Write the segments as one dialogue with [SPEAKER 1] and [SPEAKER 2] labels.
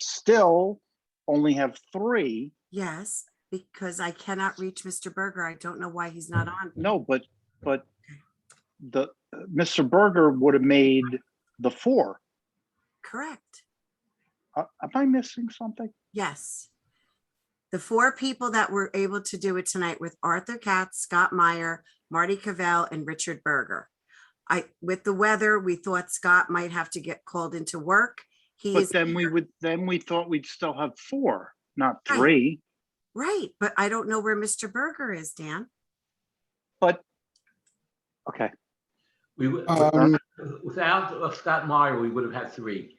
[SPEAKER 1] still only have three.
[SPEAKER 2] Yes, because I cannot reach Mr. Berger. I don't know why he's not on.
[SPEAKER 1] No, but, but the, Mr. Berger would have made the four.
[SPEAKER 2] Correct.
[SPEAKER 1] Uh, Am I missing something?
[SPEAKER 2] Yes. The four people that were able to do it tonight with Arthur Katz, Scott Meyer, Marty Cavell, and Richard Berger. I, with the weather, we thought Scott might have to get called into work. He
[SPEAKER 1] But
[SPEAKER 2] is,
[SPEAKER 1] then we would, then we thought we'd still have four, not
[SPEAKER 2] Right.
[SPEAKER 1] three.
[SPEAKER 2] right, but I don't know where Mr. Berger is, Dan.
[SPEAKER 1] Okay,
[SPEAKER 3] We would,
[SPEAKER 4] Uh,
[SPEAKER 5] Um,
[SPEAKER 3] without uh, Scott Meyer, we would have had three,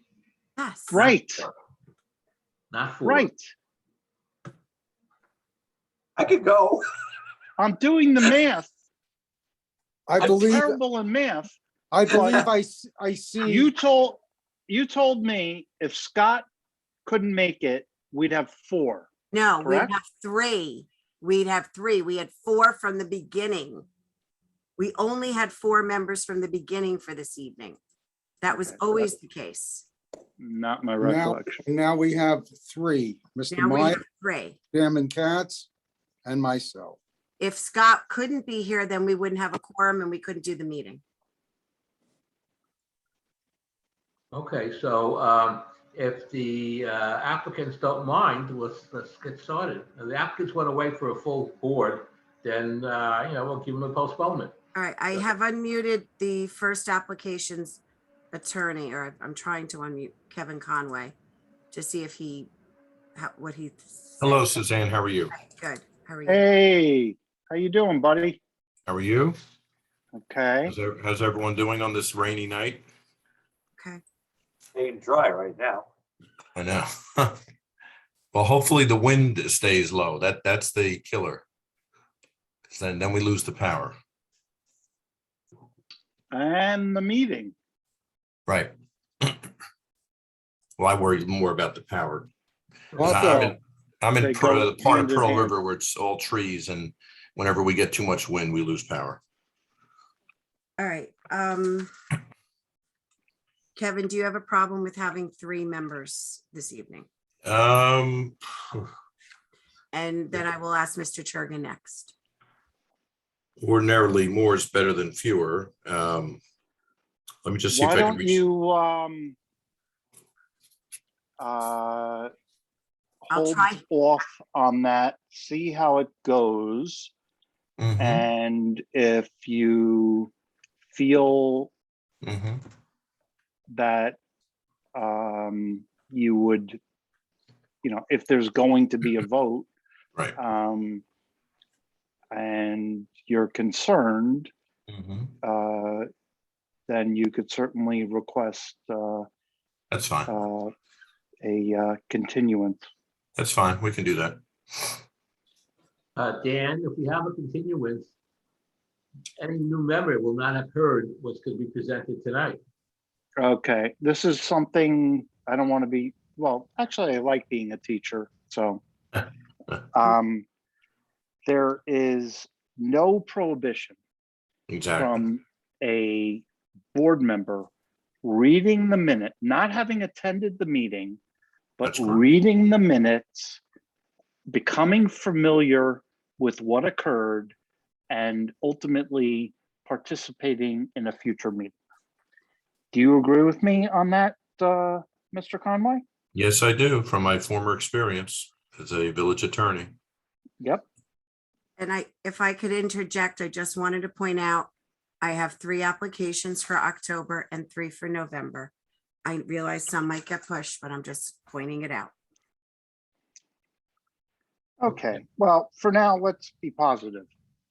[SPEAKER 2] Yes.
[SPEAKER 1] right,
[SPEAKER 3] not four.
[SPEAKER 1] right.
[SPEAKER 4] I could go.
[SPEAKER 1] I'm doing the math.
[SPEAKER 5] I
[SPEAKER 1] I'm
[SPEAKER 5] believe,
[SPEAKER 1] terrible in math.
[SPEAKER 5] I believe I, s- I see,
[SPEAKER 1] You told, you told me if Scott couldn't make it, we'd have four.
[SPEAKER 2] No, we'd
[SPEAKER 1] Correct?
[SPEAKER 2] have three. We'd have three. We had four from the beginning. We only had four members from the beginning for this evening. That was
[SPEAKER 1] Okay, so
[SPEAKER 2] always the case.
[SPEAKER 1] Not my
[SPEAKER 5] Now-
[SPEAKER 1] recollection.
[SPEAKER 5] now we have three, Mr.
[SPEAKER 2] Now we have
[SPEAKER 5] Meyer,
[SPEAKER 2] three.
[SPEAKER 5] Chairman Katz, and myself.
[SPEAKER 2] If Scott couldn't be here, then we wouldn't have a quorum and we couldn't do the meeting.
[SPEAKER 3] Okay, so um, if the uh, applicants don't mind, let's, let's get started. If The applicants went away for a full board, then, uh, you know, we'll give them a postponement.
[SPEAKER 2] All right, I have unmuted the first application's attorney, or I'm trying to unmute Kevin Conway to see if he, how- what he.
[SPEAKER 6] Hello, Suzanne. How are you?
[SPEAKER 2] Good, how are you?
[SPEAKER 1] Hey, how you doing, buddy?
[SPEAKER 6] How are you?
[SPEAKER 1] Okay,
[SPEAKER 6] How's ev- how's everyone doing on this rainy night?
[SPEAKER 2] Okay,
[SPEAKER 4] Staying dry right now.
[SPEAKER 6] I know. Well, hopefully the wind stays low. That, that's the killer. 'Cause Then, then we lose the power.
[SPEAKER 1] and the meeting.
[SPEAKER 6] Right. Well, I worry more about the power. I'm
[SPEAKER 5] Also,
[SPEAKER 6] in- I'm
[SPEAKER 1] They
[SPEAKER 6] in Pearl-
[SPEAKER 1] go
[SPEAKER 6] the part
[SPEAKER 1] hand
[SPEAKER 6] of
[SPEAKER 1] in
[SPEAKER 6] Pearl
[SPEAKER 1] hand.
[SPEAKER 6] River where it's all trees and whenever we get too much wind, we lose power.
[SPEAKER 2] all right. um, Kevin, do you have a problem with having three members this evening?
[SPEAKER 6] Um,
[SPEAKER 2] And then I will ask Mr. Churgan next.
[SPEAKER 6] ordinarily more is better than fewer. Um, let me just see if
[SPEAKER 1] Why
[SPEAKER 6] I can
[SPEAKER 1] don't
[SPEAKER 6] reach.
[SPEAKER 1] you, um, uh,
[SPEAKER 2] I'll
[SPEAKER 1] hold
[SPEAKER 2] try.
[SPEAKER 1] off on that, see how it goes,
[SPEAKER 6] Mhm,
[SPEAKER 1] and if you feel
[SPEAKER 6] mhm.
[SPEAKER 1] that, um, you would, you know, if there's going to be a vote,
[SPEAKER 6] Right.
[SPEAKER 1] um, and you're concerned,
[SPEAKER 6] Mhm.
[SPEAKER 1] uh, then you could certainly request uh,
[SPEAKER 6] That's fine.
[SPEAKER 1] uh, a uh, continuance.
[SPEAKER 6] That's fine. We can do that.
[SPEAKER 3] Uh, Dan, if we have a continuance, any new member will not have heard what's going to be presented tonight.
[SPEAKER 1] Okay, this is something I don't want to be, well, actually, I like being a teacher, so. um, There is no prohibition
[SPEAKER 6] Exactly.
[SPEAKER 1] from a board member reading the minute, not having attended the meeting, but
[SPEAKER 6] That's right.
[SPEAKER 1] reading the minutes, becoming familiar with what occurred, and ultimately participating in a future meeting. Do you agree with me on that, uh, Mr. Conway?
[SPEAKER 6] Yes, I do, from my former experience as a village attorney.
[SPEAKER 2] And I, if I could interject, I just wanted to point out, I have three applications for October and three for November. I realize some might get pushed, but I'm just pointing it out.
[SPEAKER 1] Okay, well, for now, let's be positive.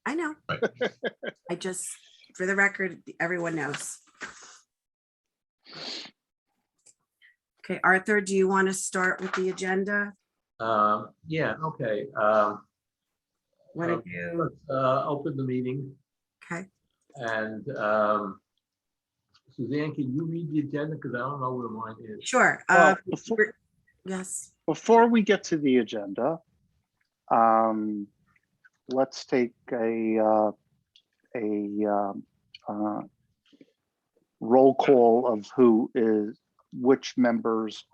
[SPEAKER 2] I know.
[SPEAKER 6] Right.
[SPEAKER 2] I just, for the record, everyone knows. Okay, Arthur, do you want to start with the agenda?
[SPEAKER 3] Um, Yeah, okay. um,
[SPEAKER 2] Want
[SPEAKER 3] Okay.
[SPEAKER 2] to do,
[SPEAKER 3] Let's uh, open the meeting.
[SPEAKER 2] okay,
[SPEAKER 3] And um, Suzanne, can you read the agenda? Because I don't know where mine is.
[SPEAKER 2] sure.
[SPEAKER 1] Well,
[SPEAKER 2] uh,
[SPEAKER 1] before-
[SPEAKER 2] we're- Yes,
[SPEAKER 1] before we get to the agenda, um, let's take a, uh, a, um, uh, roll call of who is, which members